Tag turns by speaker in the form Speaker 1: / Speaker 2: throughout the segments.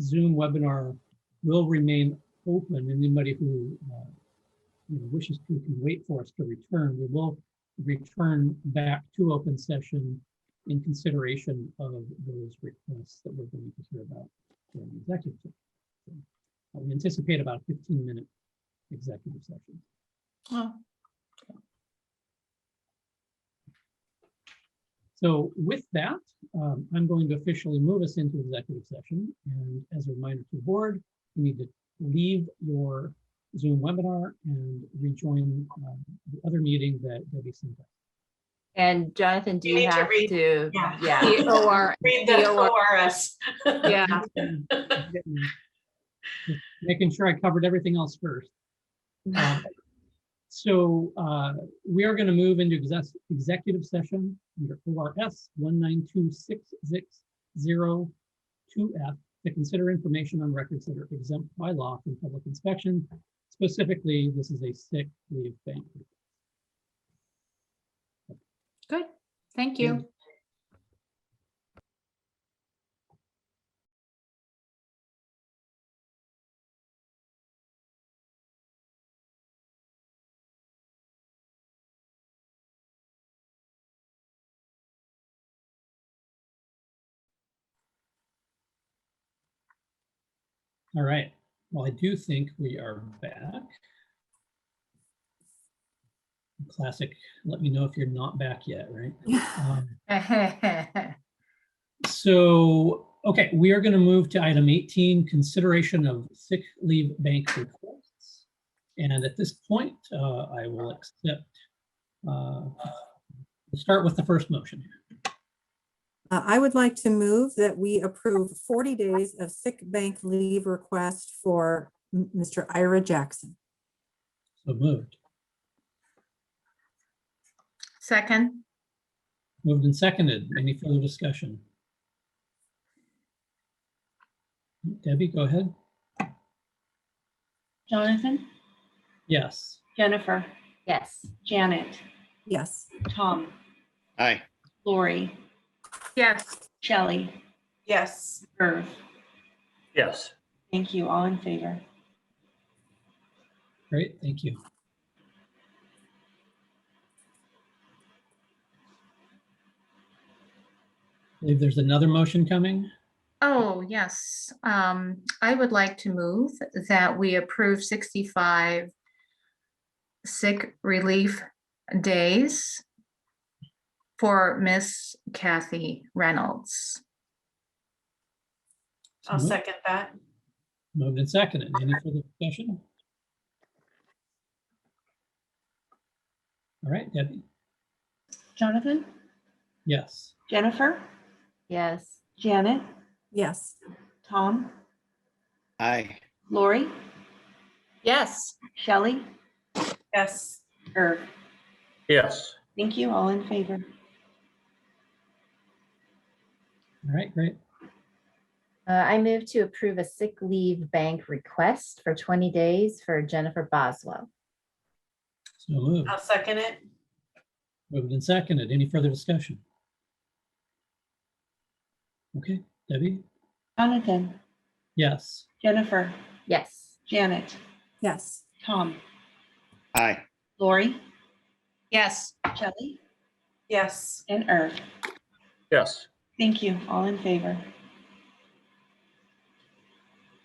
Speaker 1: Zoom webinar will remain open. Anybody who uh, you know, wishes to can wait for us to return. We will return back to open session in consideration of those requests that we're going to hear about during the executive session. So, uh, We anticipate about a 15-minute executive session.
Speaker 2: Oh,
Speaker 1: So with that, um, I'm going to officially move us into executive session. And as a reminder to the board, you need to leave your Zoom webinar and rejoin um, the other meeting that Debbie sent out.
Speaker 3: And Jonathan, do
Speaker 2: You
Speaker 3: you
Speaker 2: need to
Speaker 3: have
Speaker 2: read-
Speaker 3: to,
Speaker 2: yeah.
Speaker 3: yeah,
Speaker 4: P O R,
Speaker 2: read
Speaker 4: the
Speaker 2: the ORS.
Speaker 4: yeah,
Speaker 1: Just Making sure I covered everything else first. Um, So uh, we are going to move into exec- executive session under ORS 1926602F to consider information on records that are exempt by law from public inspection. Specifically, this is a sick leave thing.
Speaker 4: good, thank you.
Speaker 1: All right. Well, I do think we are back. Classic, let me know if you're not back yet, right? Um, So, okay, we are going to move to item 18, consideration of sick leave bank requests. And at this point, uh, I will accept, uh, we'll start with the first motion.
Speaker 5: Uh, I would like to move that we approve 40 days of sick bank leave request for M- Mr. Ira Jackson.
Speaker 1: So moved,
Speaker 4: Second,
Speaker 1: moved and seconded. Any further discussion? Debbie, go ahead.
Speaker 2: Jonathan,
Speaker 1: Yes.
Speaker 2: Jennifer,
Speaker 3: yes,
Speaker 2: Janet,
Speaker 5: Yes,
Speaker 2: Tom,
Speaker 6: Aye,
Speaker 2: Lori,
Speaker 4: yes,
Speaker 2: Shelley. Yes. Irv.
Speaker 7: Yes,
Speaker 2: Thank you. All in favor.
Speaker 1: Great, thank you. Believe there's another motion coming.
Speaker 4: oh, yes, um, I would like to move that we approve sixty-five sick relief days for Miss Kathy Reynolds.
Speaker 1: I'll
Speaker 2: second that.
Speaker 1: Moved and seconded. Any further discussion? All right, Debbie,
Speaker 2: Jonathan,
Speaker 1: yes.
Speaker 2: Jennifer,
Speaker 3: yes,
Speaker 2: Janet,
Speaker 5: yes,
Speaker 2: Tom,
Speaker 6: aye,
Speaker 2: Lori,
Speaker 4: Yes.
Speaker 2: Shelley. Yes. Irv.
Speaker 7: yes,
Speaker 2: Thank you. All in favor.
Speaker 1: All right, great.
Speaker 3: Uh, I move to approve a sick leave bank request for twenty days for Jennifer Boswell.
Speaker 1: So moved,
Speaker 2: second it.
Speaker 1: moved and seconded. Any further discussion? Okay, Debbie,
Speaker 2: Jonathan,
Speaker 1: yes.
Speaker 2: Jennifer,
Speaker 3: Yes,
Speaker 2: Janet,
Speaker 5: yes,
Speaker 2: Tom,
Speaker 6: aye,
Speaker 2: Lori,
Speaker 4: Yes,
Speaker 2: Shelley. Yes. And Irv.
Speaker 7: yes,
Speaker 2: Thank you. All in favor.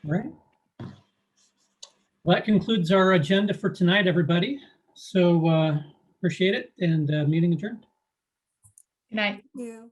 Speaker 1: All right. Well, that concludes our agenda for tonight, everybody. So uh appreciate it and uh meeting adjourned.
Speaker 4: good night.
Speaker 5: you.